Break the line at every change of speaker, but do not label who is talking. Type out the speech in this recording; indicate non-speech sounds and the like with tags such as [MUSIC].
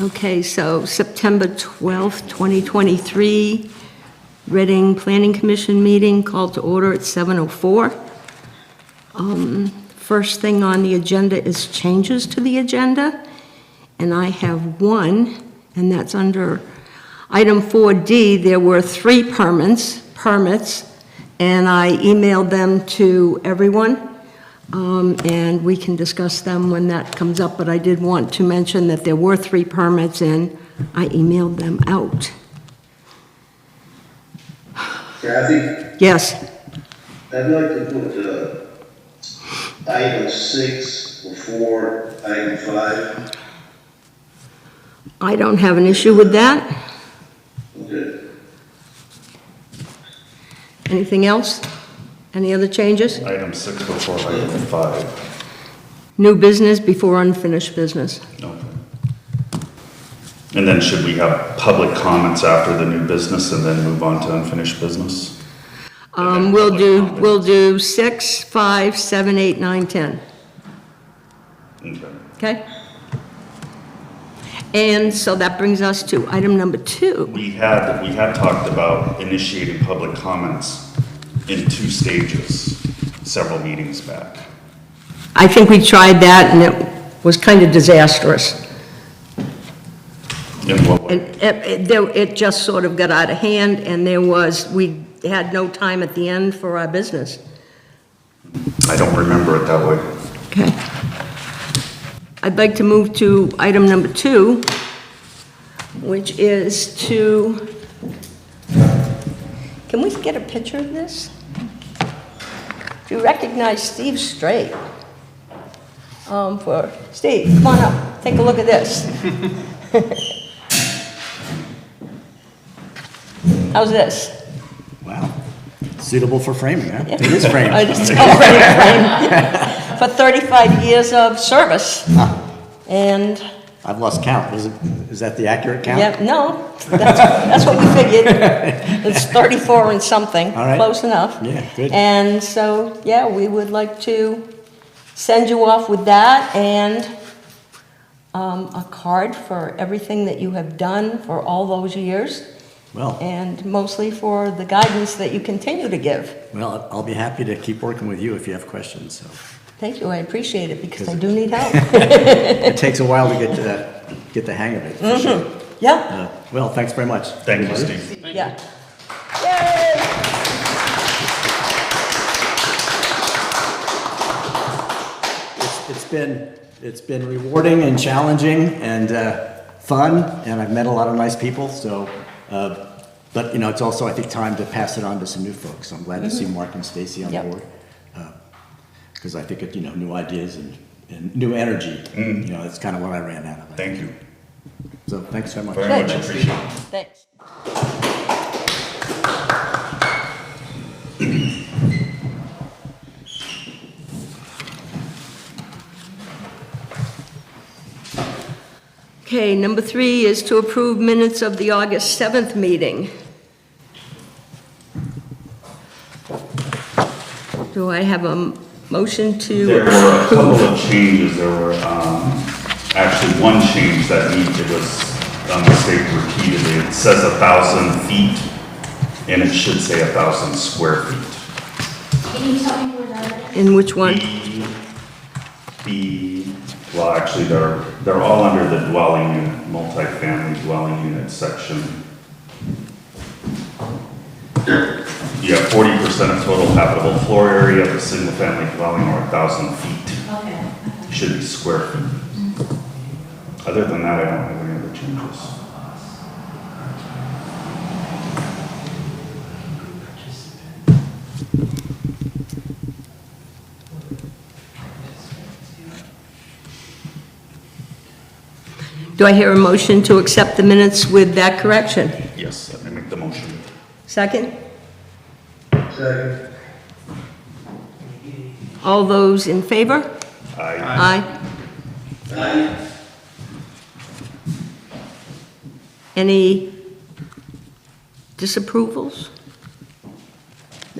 Okay, so September 12th, 2023, Reading Planning Commission meeting called to order at 7:04. Um, First thing on the agenda is changes to the agenda, and I have one, and that's under item 4D. There were three permits, permits, and I emailed them to everyone. Um, And we can discuss them when that comes up, but I did want to mention that there were three permits, and I emailed them out.
Kathy,
Yes,
I'd like to put, uh, item six before item five.
I don't have an issue with that.
Okay,
Anything else? Any other changes?
Item six before item five.
New business before unfinished business.
Okay. And then should we have public comments after the new business and then move on to unfinished business?
Um, We'll do, we'll do six, five, seven, eight, nine, ten.
Okay.
okay? And so that brings us to item number two.
We had, we had talked about initiating public comments in two stages several meetings back.
I think we tried that, and it was kind of disastrous.
In what way?
And it- it, there- it just sort of got out of hand, and there was, we had no time at the end for our business.
I don't remember it that way.
Okay. I'd like to move to item number two, which is to, can we get a picture of this? Do you recognize Steve Straight? Um, for, Steve, come on up, take a look at this. [LAUGHS] How's this?
Wow. Suitable for framing, huh? It is
[LAUGHS]
framed.
I just
[LAUGHS]
don't frame. For 35 years of service. And,
I've lost count. Is, it, is that the accurate count?
yeah, no, that's, that's what we figured. It's 34 and something,
All right.
close enough.
Yeah, good.
And so, yeah, we would like to send you off with that and um, a card for everything that you have done for all those years
Well,
and mostly for the guidance that you continue to give.
well, I'll be happy to keep working with you if you have questions. So
Thank you, I appreciate it because I do
Because-
need help.
it takes a while to get to that, get the hang of it. for sure.
Yeah.
Uh, well, thanks very much.
Thank you, Steve.
Yeah. Yay!
It's, it's been it's been rewarding and challenging and uh, fun, and I've met a lot of nice people. So, uh, but you know, it's also I think time to pass it on to some new folks. I'm glad to
Mm-hmm.
see Mark and Stacy on
Yep.
board because I think it, you know new ideas and, and new energy. You know, that's kind of what I ran out of.
Mm-hmm. Thank you.
So thanks so much.
Very much appreciated.
Thanks. Okay, number three is to approve minutes of the August 7th meeting. Do I have a m- motion
There
to?
were a couple of changes, there were, um, actually one change that needed, it was a mistake repeatedly. It says a thousand feet, and it should say a thousand square feet.
Can you tell me where that is?
In which one?
B, B, well, actually, they're, they're all under the dwelling unit, multifamily dwelling unit section. Yeah, forty percent of total habitable floor area of a single-family dwelling or a thousand feet.
Okay.
should be square feet. Other than that, I don't have any other changes.
Do I hear a motion to accept the minutes with that correction?
Yes, let me make the motion.
Second?
second,
All those in favor?
I,
Aye.
aye,
Any disapprovals?